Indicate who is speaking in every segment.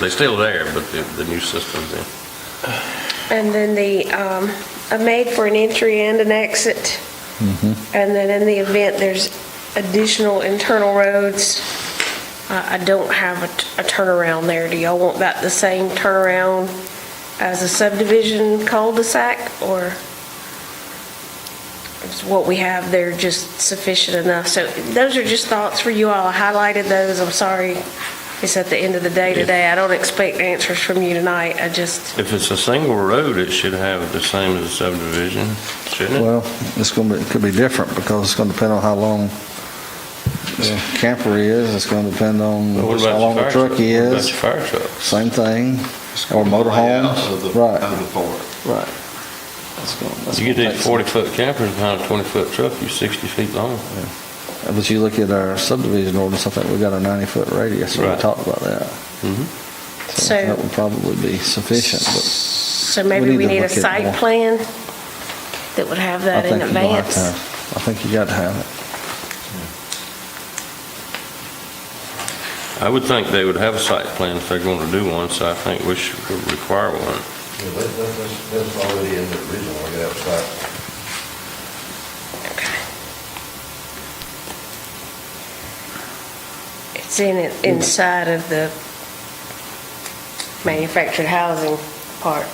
Speaker 1: They're still there, but the, the new system's in.
Speaker 2: And then the, um, a made for an entry and an exit. And then in the event there's additional internal roads, I, I don't have a t- a turnaround there. Do y'all want that the same turnaround as a subdivision cul-de-sac? Or is what we have there just sufficient enough? So those are just thoughts for you all. I highlighted those. I'm sorry. It's at the end of the day today. I don't expect answers from you tonight. I just,
Speaker 1: If it's a single road, it should have the same as a subdivision, shouldn't it?
Speaker 3: Well, it's going to be, it could be different because it's going to depend on how long the camper is. It's going to depend on
Speaker 1: But what
Speaker 3: how
Speaker 1: about
Speaker 3: long
Speaker 1: your
Speaker 3: the
Speaker 1: fire
Speaker 3: truck
Speaker 1: truck? What about
Speaker 3: is.
Speaker 1: your fire truck?
Speaker 3: Same thing. Or
Speaker 4: Of the,
Speaker 3: motorhome.
Speaker 4: of
Speaker 3: Right,
Speaker 4: the board.
Speaker 3: right. That's gonna- that's
Speaker 1: You get
Speaker 3: gonna take
Speaker 1: these
Speaker 3: some-
Speaker 1: forty-foot campers behind a twenty-foot truck, you're sixty feet long.
Speaker 3: But you look at our subdivision ordinance, I think we got a 90-foot radius. so We
Speaker 1: Right.
Speaker 3: talked about that. Mm-hmm.
Speaker 2: so.
Speaker 3: That would probably be sufficient, but
Speaker 2: So maybe
Speaker 3: need
Speaker 2: we
Speaker 3: to
Speaker 2: need a
Speaker 3: look at
Speaker 2: site
Speaker 3: more.
Speaker 2: plan that would have
Speaker 3: I
Speaker 2: that in
Speaker 3: think you're going to have to
Speaker 2: advance.
Speaker 3: have, I think you got to have it.
Speaker 1: I would think they would have a site plan if they're gonna do one, so I think we should require one.
Speaker 4: Yeah, that, that- that's, that's already in the original, I got outside.
Speaker 2: It's in, it inside of the manufactured housing part.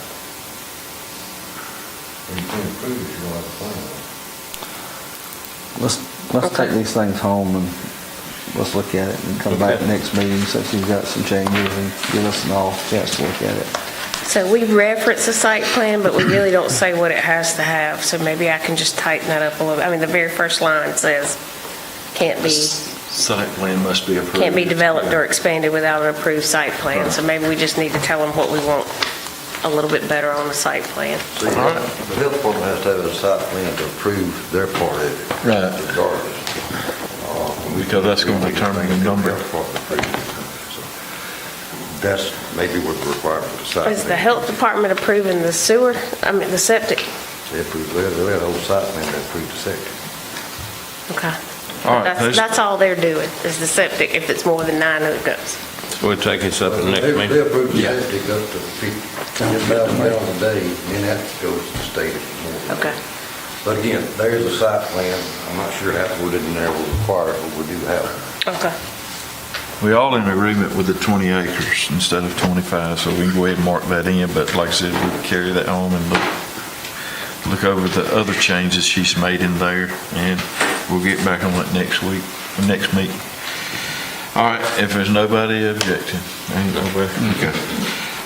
Speaker 4: And you can improve if you don't have a plan.
Speaker 3: Let's, let's
Speaker 2: Okay.
Speaker 3: take these things home and let's look at it and come back
Speaker 1: Okay.
Speaker 3: next meeting since you've got some changes and give us an all chance to look at it.
Speaker 2: So we reference the site plan, but we really don't say what it has to have, so maybe I can just tighten that up a little. I mean, the very first line says, can't be,
Speaker 4: Site plan must be approved.
Speaker 2: can't be developed or expanded without an approved site plan. So maybe we just need to tell them what we want a little bit better on the site plan.
Speaker 4: See, the health department has to have a site plan to approve their part of it.
Speaker 5: Right.
Speaker 4: Regardless.
Speaker 5: Because that's gonna determine the number.
Speaker 4: That's maybe what the requirement of the site.
Speaker 2: Is the
Speaker 4: plan.
Speaker 2: health department approving the sewer, I mean, the septic?
Speaker 4: They approve, they, they had a whole site plan that approved the second.
Speaker 2: Okay.
Speaker 5: All right,
Speaker 2: That's,
Speaker 5: let's-
Speaker 2: that's all they're doing, is the septic, if it's more than nine hookups.
Speaker 1: We'll take this up at the next
Speaker 4: They-
Speaker 1: meeting.
Speaker 4: They approve the
Speaker 5: Yeah.
Speaker 4: septic up to fifty thousand gallons a day, then that goes to the state. if more.
Speaker 2: Okay.
Speaker 4: But again, there's a site plan, I'm not sure how it would in there will require, it, but we do have it.
Speaker 2: Okay.
Speaker 5: We all in agreement with the 20 acres instead of 25, so we can go ahead and mark that in, but like I said, we carry that home and look, look over the other changes she's made in there, and we'll get back on it next week, next meeting. All right, if there's nobody objecting, ain't nobody, okay.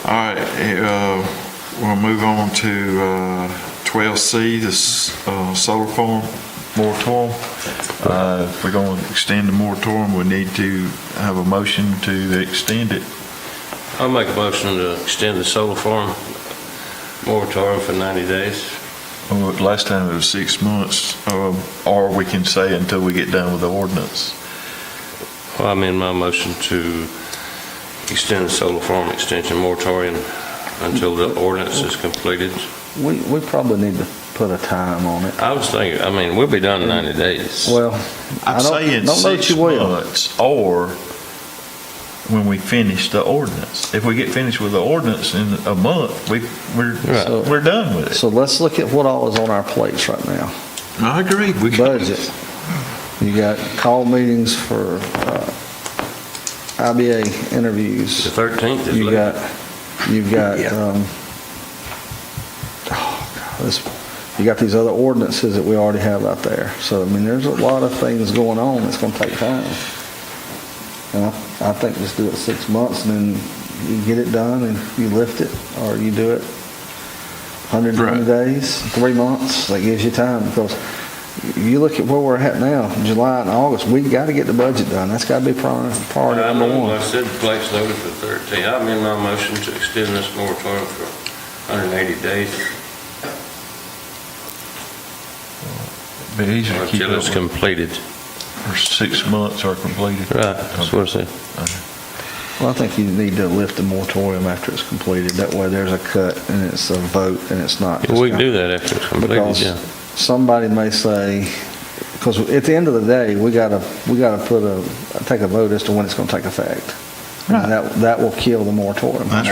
Speaker 5: All right, eh, uh, we'll move on to uh, 12C, this uh, solar farm moratorium. Uh, If we're going to extend the moratorium, we need to have a motion to extend it.
Speaker 1: I'll make a motion to extend the solar farm moratorium for ninety days.
Speaker 5: Oh, Last time it was six months, um, or we can say until we get done with the ordinance.
Speaker 1: Well, I'm in my motion to extend the solar farm extension moratorium until the ordinance is completed.
Speaker 3: We, we probably need to put a time on it.
Speaker 1: I was thinking, I mean, we'll be done in ninety days.
Speaker 3: Well, I
Speaker 5: I'm saying
Speaker 3: don't, don't know that
Speaker 5: six
Speaker 3: you will.
Speaker 5: months, or when we finish the ordinance. If we get finished with the ordinance in a month, we, we're,
Speaker 3: Right.
Speaker 5: we're done with it.
Speaker 3: So let's look at what all is on our plates right now.
Speaker 5: I agree. We can-
Speaker 3: Budget. You got call meetings for, uh, IBA interviews.
Speaker 1: The thirteenth is
Speaker 3: You
Speaker 1: late.
Speaker 3: got, you've got,
Speaker 4: Yeah.
Speaker 3: um, oh, God, this, you got these other ordinances that we already have out there. So, I mean, there's a lot of things going on that's gonna take time. You know, I think just do it six months and then you get it done and you lift it, or you do it hundred and twenty
Speaker 5: Right.
Speaker 3: days, three months, that gives you time, because you look at where we're at now, July and August, we gotta get the budget done. That's gotta be priority, priority
Speaker 1: I
Speaker 3: number
Speaker 1: know,
Speaker 3: one.
Speaker 1: I said place noted for thirteen. I'm in my motion to extend this moratorium for hundred and eighty days
Speaker 5: Be easier to keep
Speaker 1: until it's
Speaker 5: it up
Speaker 1: completed.
Speaker 5: for six months or completed.
Speaker 1: I said.
Speaker 3: Well, I think you need to lift the moratorium after it's completed. That way there's a cut and it's a vote and it's not. just
Speaker 1: We can
Speaker 3: kinda-
Speaker 1: do that after it's completed,
Speaker 3: Because
Speaker 1: yeah.
Speaker 3: somebody may say, because at the end of the day, we gotta, we gotta put a, take a vote as to when it's gonna take effect. And that, that will kill the moratorium.
Speaker 5: That's